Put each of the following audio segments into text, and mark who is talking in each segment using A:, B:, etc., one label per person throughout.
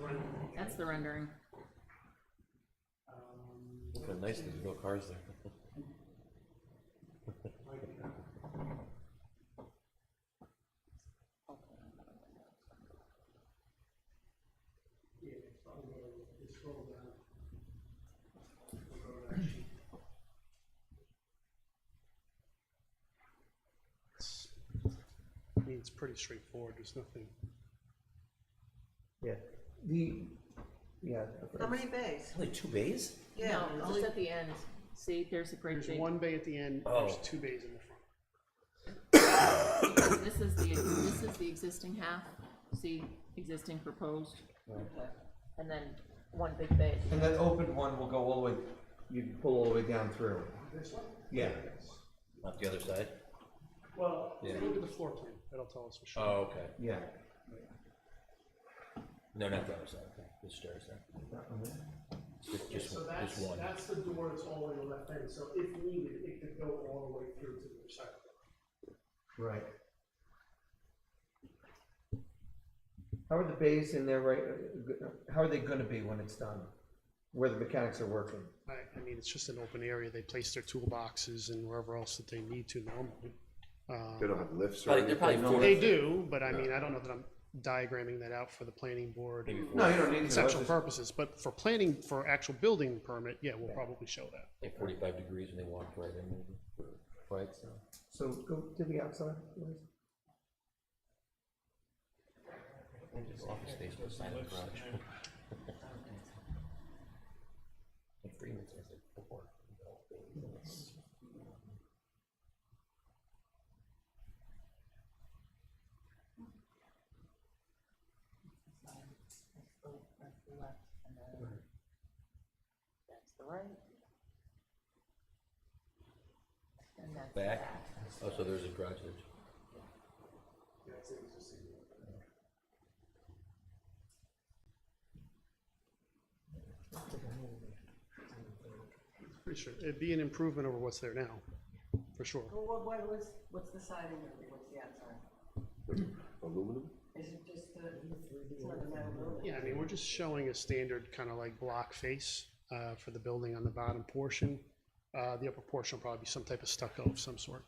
A: rendering.
B: That's the rendering.
A: Um,
C: But nice, there's no cars there.
A: like, yeah, so I'll go, just scroll down. We'll go to action. I mean, it's pretty straightforward, there's nothing.
D: Yeah, the, yeah.
E: How many bays?
C: Only two bays?
E: Yeah,
B: No,
E: only-
B: just at the end. See, there's a great
A: There's
B: big,
A: one bay at the end, there's
C: Oh.
A: two bays in the front.
B: this is the, this is the existing half, see, existing proposed, and then one big bay.
D: And that open one will go all the way, you pull all the way down through.
A: This one?
D: Yeah.
C: Up the other side?
A: Well,
C: Yeah.
A: look at the floor plan, that'll tell us for sure.
C: Oh, okay.
D: Yeah.
C: No, not the other side, okay, the stairs there.
D: That one there.
C: Just,
A: Yeah,
C: just
A: so
C: one-
A: that's,
C: just one.
A: that's the door that's all on the left end, so if needed, it could go all the way through to the other side.
D: Right. How are the bays in there, right, uh, how are they gonna be when it's done? Where the mechanics are working?
A: I, I mean, it's just an open area, they place their toolboxes and wherever else that they need to normally.
F: They
A: Uh,
F: don't have lifts or
C: Probably,
F: anything?
C: they're probably four,
A: They do, but I mean, I don't know that I'm diagramming that out for the planning board,
C: maybe
D: No,
C: four,
D: you don't need to.
A: conceptual
D: That's just-
A: purposes, but for planning, for actual building permit, yeah, we'll probably show that.
C: like forty-five degrees and they walked right in. maybe.
D: Right, so, so go to the outside, please.
C: Office space with a silent garage. Like Freeman's, I said, four.
B: That's the right. And that's
C: Back, oh, so there's a garage there.
A: Pretty sure, it'd be an improvement over what's there now, for sure.
E: well, what, what was, what's the siding and what's the outside?
F: Aluminum?
E: Is it just the, it's not a metal building?
A: Yeah, I mean, we're just showing a standard kind of like block face uh, for the building on the bottom portion. Uh, The upper portion will probably be some type of stucco of some sort.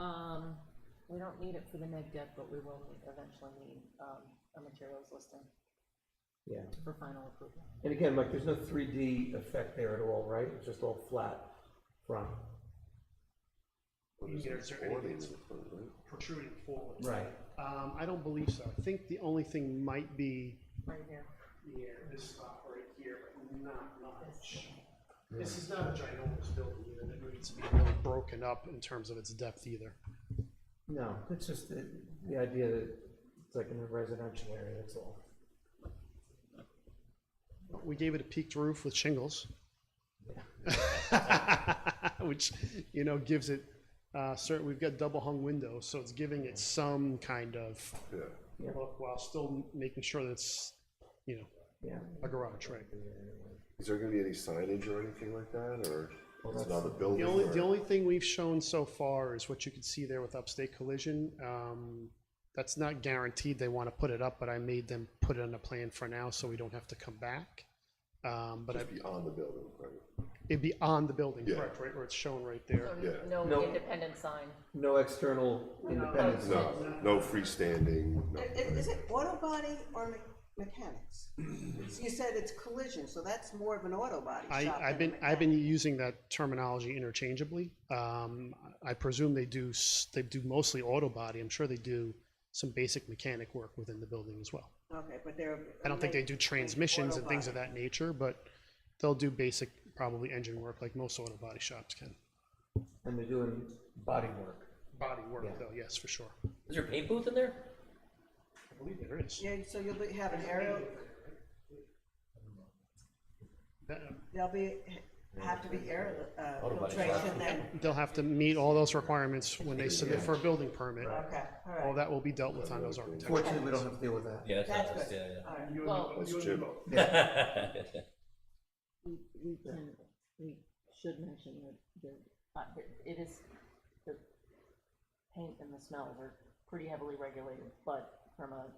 B: Um, we don't need it for the neg deck, but we will need- eventually need, um, a materials listing
D: Yeah.
B: for final approval.
D: And again, Mike, there's no three D effect there at all, right? It's just all flat front.
A: You can get certain
F: Awnings
A: things
F: in front, right?
A: Protruding forward.
D: Right.
A: Um, I don't believe so. I think the only thing might be,
B: Right here.
A: yeah, this spot right here, but not much. This is not a ginormous building either, that needs to be really broken up in terms of its depth either.
D: No, it's just the, the idea that it's like in a residential area, that's all.
A: We gave it a peaked roof with shingles. Which, you know, gives it, uh, certain, we've got double hung windows, so it's giving it some kind of
F: Yeah.
A: look while still making sure that it's, you know,
D: Yeah.
A: a garage, right?
F: Is there gonna be any signage or anything like that, or it's not a
A: The
F: building?
A: only,
F: or-
A: the only thing we've shown so far is what you can see there with upstate collision. Um, that's not guaranteed they want to put it up, but I made them put it on a plan for now, so we don't have to come back. Um, but I-
F: Just beyond the building, right?
A: it'd be on the building,
F: Yeah.
A: correct, right, where it's shown right there.
F: Yeah.
B: No
D: No.
B: independent sign.
D: No external independence.
F: No, no freestanding, no.
E: I- i- Is it auto body or me- mechanics? You said it's collision, so that's more of an auto body shop
A: I,
E: than a
A: I've been, I've
E: mechanic.
A: been using that terminology interchangeably. Um, I presume they do, s- they do mostly auto body. I'm sure they do some basic mechanic work within the building as well.
E: Okay, but they're.
A: I don't think they
E: make-
A: do
E: make
A: transmissions
E: auto
A: and things of
E: body.
A: that nature, but they'll do basic, probably engine work like most auto body shops can.
D: And they're doing body work.
A: Body
D: Yeah.
A: work though, yes, for sure.
C: Is there a paint booth in there?
A: I believe there is.
E: Yeah, so you'll be- have an aerial,
A: That-
E: there'll be, have to be air, uh,
C: body
E: filtration then,
A: They'll have to meet all those requirements when they submit for a building permit.
E: okay, all right.
A: All that will be dealt with on those architectural.
D: Fortunately, we don't have to deal with that.
C: Yeah, that's not,
E: That's
C: that's,
E: good.
C: yeah, yeah.
E: All right.
B: Well,
F: That's Jim.
B: we, we can, we should mention that the, uh, it- it is, the paint and the smells are pretty heavily regulated, but from a